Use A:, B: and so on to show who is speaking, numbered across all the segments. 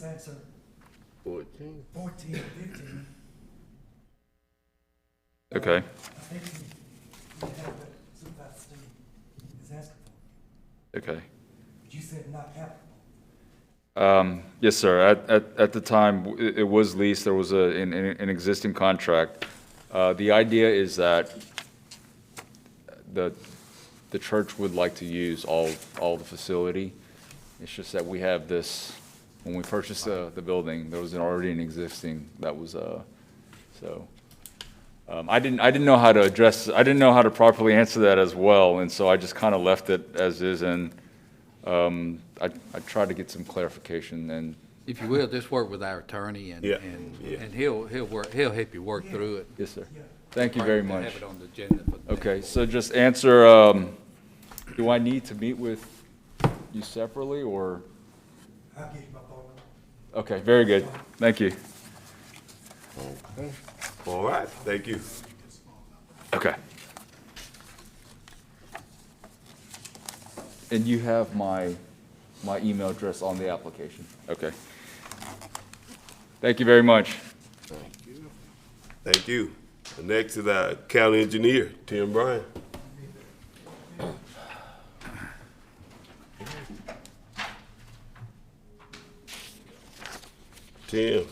A: that's a
B: Fourteen.
A: fourteen, fifteen.
C: Okay,
A: I think uh, you have what Supervisor Steen is asking for,
C: okay.
A: but you said not applicable.
C: Um, Yes, sir. At, at, at the time, w- it it was leased, there was a, an, an an existing contract. Uh, The idea is that the, the church would like to use all, all the facility. It's just that we have this, when we purchased the, the building, there was an already an existing that was, uh, so. Um, I didn't, I didn't know how to address, I didn't know how to properly answer that as well, and so I just kind of left it as is, and um, I, I tried to get some clarification, and,
D: If you will, just work with our attorney and,
B: Yeah,
D: and,
B: yeah.
D: and he'll, he'll work, he'll help you work through it.
C: yes, sir.
A: Yeah.
C: Thank you very
D: To
C: much.
D: Have it on the agenda for the next
C: Okay,
D: board.
C: so just answer, um, do I need to meet with you separately, or?
A: I'll give you my phone number.
C: Okay, very good. Thank you.
B: All right, thank you.
C: Okay. And you have my, my email address on the application? Okay. Thank you very much.
B: Thank you. The Next is our county engineer, Tim Bryan. Tim.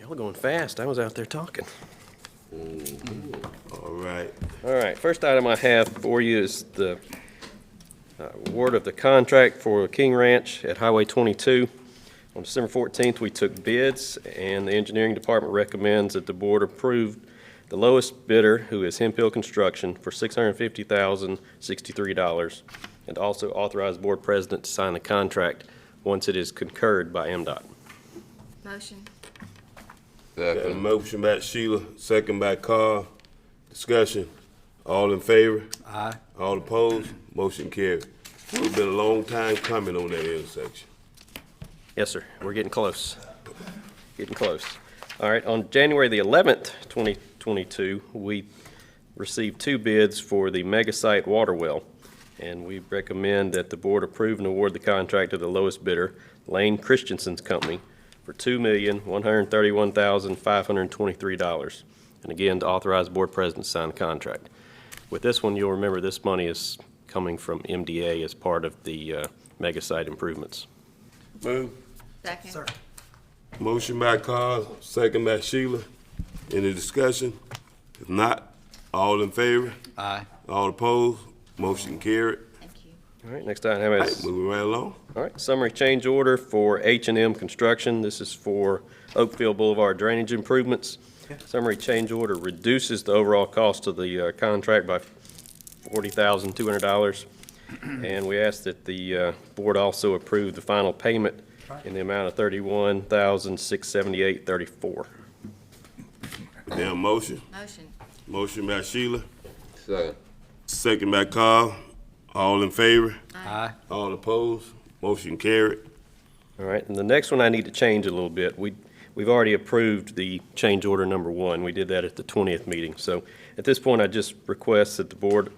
E: Y'all going fast. I was out there talking.
B: All right.
E: All right, first item I have for you is the uh, award of the contract for King Ranch at Highway 22. On December 14th, we took bids, and the engineering department recommends that the board approve the lowest bidder, who is Hemp Hill Construction, for $650,063, and also authorize board president to sign the contract once it is concurred by MDOT.
F: Motion.
B: Got a motion by Sheila, second by Carl. Discussion. All in favor?
D: Aye.
B: All opposed? Motion carried. It's been a long time coming on that intersection.
E: Yes, sir. We're getting close. Getting close. All right, on January the 11th, 2022, we received two bids for the mega site water well, and we recommend that the board approve and award the contract to the lowest bidder, Lane Christensen's Company, for $2,131,523. And again, to authorize board president to sign the contract. With this one, you'll remember this money is coming from MDA as part of the uh, mega site improvements.
B: Move.
F: Second.
B: Motion by Carl, second by Sheila. Any discussion? If not, all in favor?
D: Aye.
B: All opposed? Motion carried.
F: Thank you.
E: All right, next item I have
B: All
E: is.
B: right, moving right along.
E: All right, summary change order for h and M Construction. This is for Oakville Boulevard drainage improvements. Summary change order reduces the overall cost of the uh, contract by $40,200. And we ask that the uh, board also approve the final payment in the amount of $31,678.34.
B: Now, motion.
F: Motion.
B: Motion by Sheila. Second. Second by Carl. All in favor?
D: Aye.
B: All opposed? Motion carried.
E: All right, and the next one I need to change a little bit. We, we've already approved the change order number one. We did that at the 20th meeting. So at this point, I just request that the board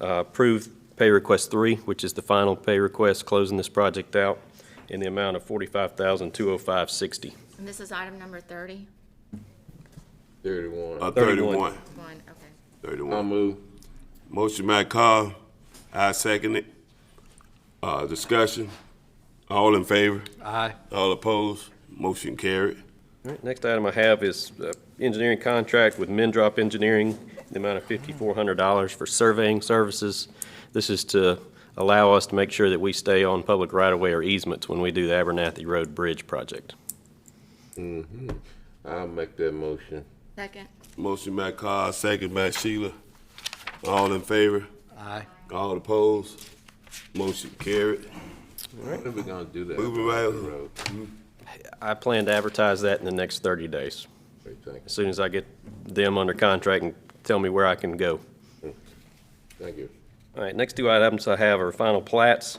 E: uh, approve pay request three, which is the final pay request closing this project out in the amount of $45,205.60.
F: And this is item number thirty?
B: Uh,
E: 31.
B: thirty-one.
F: One, okay.
B: Thirty-one. move. Motion by Carl. I second it. Uh, discussion. All in favor?
D: Aye.
B: All opposed? Motion carried.
E: All right, next item I have is uh, engineering contract with Mendrop Engineering, the amount of $5,400 for surveying services. This is to allow us to make sure that we stay on public right-of-way or easements when we do the Abernathy Road Bridge project.
G: I'll make that motion.
F: Second.
B: Motion by Carl, second by Sheila. All in favor?
D: Aye.
B: All opposed? Motion carried.
G: When are we gonna do that?
B: Moving right along.
G: Road.
E: I plan to advertise that in the next 30 days,
G: Great, Thank
E: as soon as I get them under contract and tell me where I can go.
G: you. Thank you.
E: All right, next two items I have are final plats.